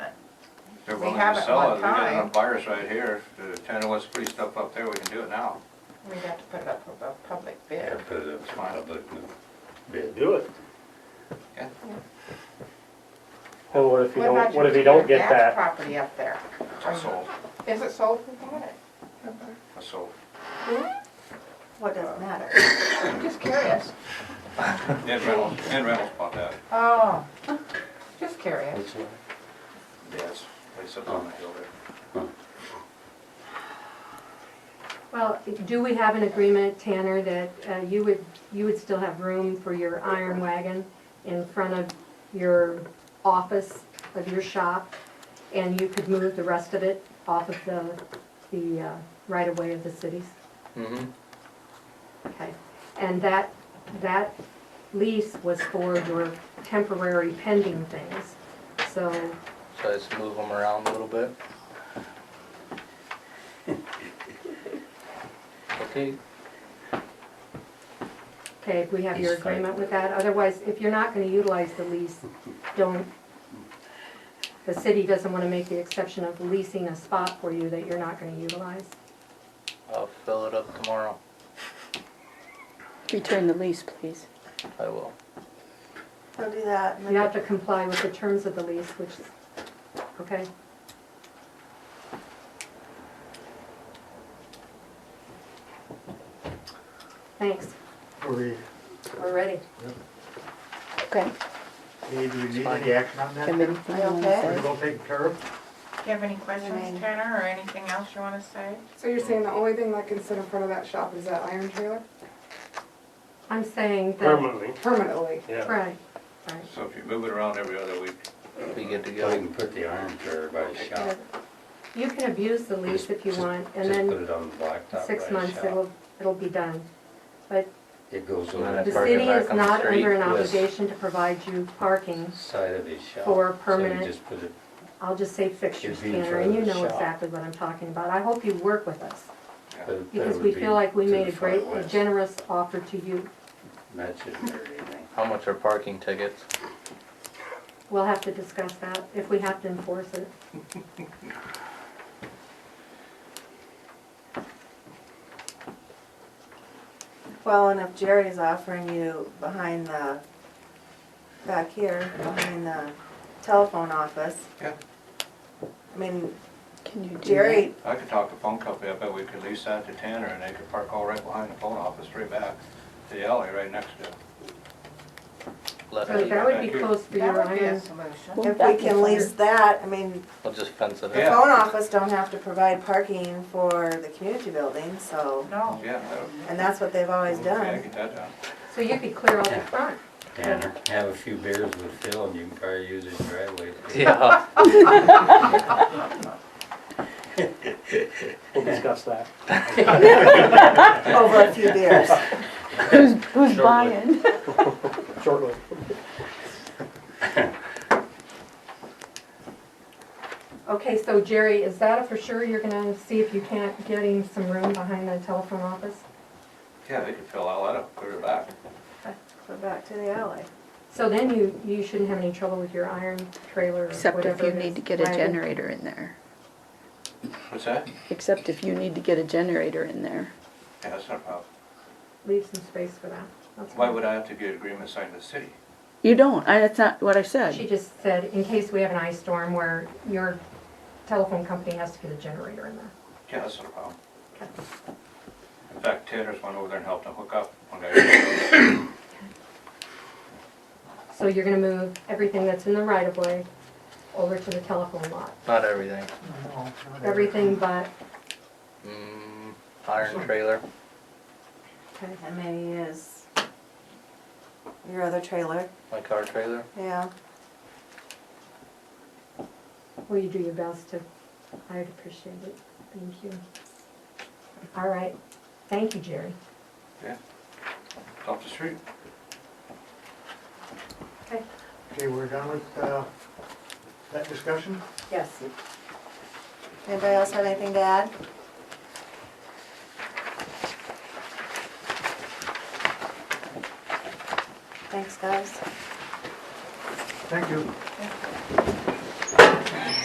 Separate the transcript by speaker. Speaker 1: they're
Speaker 2: We
Speaker 1: willing
Speaker 2: have
Speaker 1: to
Speaker 2: at
Speaker 1: sell
Speaker 2: one
Speaker 1: it, we got
Speaker 2: time.
Speaker 1: enough buyers right here, the tenant wants to put his stuff up there, we can do it now.
Speaker 2: We'd have to put it up for a public
Speaker 3: Yeah,
Speaker 2: bid.
Speaker 3: put it up uh, for public bid.
Speaker 4: Do it.
Speaker 5: Well, what if you
Speaker 2: about
Speaker 5: don't,
Speaker 2: your
Speaker 5: what if you don't
Speaker 2: Peter Gass
Speaker 5: get that?
Speaker 2: Property up there.
Speaker 1: I sold,
Speaker 2: Is it sold? Who bought it?
Speaker 1: I sold.
Speaker 2: What does it matter? I'm just curious.
Speaker 1: Ned Reynolds, Ned Reynolds bought that,
Speaker 2: Oh, just curious.
Speaker 3: Which one?
Speaker 1: yes, place up on the hill there.
Speaker 6: Well, do we have an agreement, Tanner, that uh, you would, you would still have room for your iron wagon in front of your office, of your shop, and you could move the rest of it off of the, the uh, right-of-way of the cities? Okay, and that, that lease was for your temporary pending things, so
Speaker 7: So let's move them around a little bit. Okay,
Speaker 6: Okay, we have your
Speaker 3: He's fine.
Speaker 6: agreement with that, otherwise, if you're not gonna utilize the lease, don't, the city doesn't wanna make the exception of leasing a spot for you that you're not gonna utilize.
Speaker 7: I'll fill it up tomorrow.
Speaker 8: Return the lease, please.
Speaker 7: I will.
Speaker 9: Don't do that.
Speaker 6: You have to comply with the terms of the lease, which, is- okay? Thanks,
Speaker 4: Or we,
Speaker 6: we're ready.
Speaker 8: Okay.
Speaker 4: hey, do we need any action on that?
Speaker 8: Have
Speaker 4: We're
Speaker 8: anything you wanna
Speaker 9: Okay.
Speaker 8: say?
Speaker 4: all taken care of?
Speaker 2: Do you have any questions, Tanner, or anything else you want to say?
Speaker 10: So you're saying the only thing that can sit in front of that shop is that iron trailer?
Speaker 6: I'm saying that,
Speaker 5: Permanently.
Speaker 10: Permanently?
Speaker 6: right,
Speaker 3: Oh.
Speaker 6: right.
Speaker 1: So if you move it around every other week,
Speaker 7: Be good to
Speaker 3: You
Speaker 7: go.
Speaker 3: can put the iron for everybody's shop.
Speaker 6: You can abuse the lease if you
Speaker 3: Just-
Speaker 6: want, and
Speaker 3: just
Speaker 6: then.
Speaker 3: put it on the blacktop by
Speaker 6: six
Speaker 3: the
Speaker 6: months,
Speaker 3: shop.
Speaker 6: it'll, it'll be done. But
Speaker 3: It goes
Speaker 7: Not
Speaker 3: over
Speaker 7: at
Speaker 6: the
Speaker 3: the park
Speaker 7: park. it
Speaker 6: city
Speaker 7: back
Speaker 6: is
Speaker 7: on the
Speaker 6: not
Speaker 7: street,
Speaker 6: under an
Speaker 7: yes.
Speaker 6: obligation to provide you parking.
Speaker 3: side of his shop.
Speaker 6: For
Speaker 3: So you
Speaker 6: permanent-
Speaker 3: just put it,
Speaker 6: I'll just say fixtures,
Speaker 3: You'd be in
Speaker 6: Tanner,
Speaker 3: front
Speaker 6: and you
Speaker 3: of the
Speaker 6: know
Speaker 3: shop.
Speaker 6: exactly what I'm talking about. I hope you work with us,
Speaker 3: but- but it
Speaker 6: because
Speaker 3: would
Speaker 6: we
Speaker 3: be
Speaker 6: feel like we
Speaker 3: to the
Speaker 6: made a
Speaker 3: front
Speaker 6: great,
Speaker 3: west.
Speaker 6: generous offer to you.
Speaker 3: That shouldn't hurt anything.
Speaker 7: How much are parking tickets?
Speaker 6: We'll have to discuss that, if we have to enforce it.
Speaker 9: Well, and if Jerry's offering you behind the, back here, behind the telephone office.
Speaker 1: Yeah.
Speaker 9: I mean,
Speaker 8: Can you do that?
Speaker 9: Jerry,
Speaker 1: I could talk to phone company, I bet we could lease that to Tanner and they could park all right behind the phone office, right back to the alley right next to it.
Speaker 7: Let
Speaker 6: So
Speaker 7: it,
Speaker 6: that would be close for your
Speaker 2: That would be a
Speaker 6: iron.
Speaker 2: solution.
Speaker 8: Well,
Speaker 9: if we
Speaker 8: that'd be
Speaker 9: can
Speaker 8: fine.
Speaker 9: lease that, I mean,
Speaker 7: we'll just fence it
Speaker 9: the
Speaker 1: Yeah.
Speaker 7: up.
Speaker 9: phone office don't have to provide parking for the community building, so,
Speaker 2: No.
Speaker 1: Yeah, that would,
Speaker 9: and that's what they've always
Speaker 1: yeah,
Speaker 9: done.
Speaker 1: get that done.
Speaker 6: So you could clear all the front.
Speaker 3: Tanner, have a few beers with Phil and you can probably use his driveway.
Speaker 7: Yeah,
Speaker 5: We'll discuss that.
Speaker 9: Over a few beers.
Speaker 8: Who's, who's buying?
Speaker 5: shortly.
Speaker 6: Okay, so Jerry, is that a for sure you're gonna see if you can't get him some room behind the telephone office?
Speaker 1: Yeah, they could fill all that up, clear it back.
Speaker 9: Go back to the alley.
Speaker 6: So then you, you shouldn't have any trouble with your iron trailer or
Speaker 8: Except if
Speaker 6: whatever
Speaker 8: you
Speaker 6: it
Speaker 8: need
Speaker 6: is.
Speaker 8: to get a
Speaker 6: Right.
Speaker 8: generator in there.
Speaker 1: What's that?
Speaker 8: Except if you need to get a generator in there.
Speaker 1: Yeah, that's not a problem.
Speaker 6: Leave some space for that. That's
Speaker 1: Why
Speaker 6: fine.
Speaker 1: would I have to get agreement signed with the city?
Speaker 8: You don't, I, that's not what I
Speaker 6: She
Speaker 8: said.
Speaker 6: just said, in case we have an ice storm where your telephone company has to get a generator in there.
Speaker 1: Yeah, that's not a problem.
Speaker 6: Okay.
Speaker 1: In fact, Tanner's went over there and helped him hook up one guy.
Speaker 6: So you're gonna move everything that's in the right of way over to the telephone lot.
Speaker 7: not everything.
Speaker 6: Everything but,
Speaker 7: Mm, Iron trailer,
Speaker 6: okay,
Speaker 9: And maybe is your other trailer,
Speaker 7: my car trailer.
Speaker 9: yeah.
Speaker 6: will you do your best to, I would appreciate it. Thank you. All right, thank you, Jerry.
Speaker 1: Up the street.
Speaker 6: Okay.
Speaker 4: Okay, we're done with, uh, that discussion?
Speaker 6: Yes.
Speaker 9: Anybody else have anything to add? Thanks, guys.
Speaker 4: Thank you.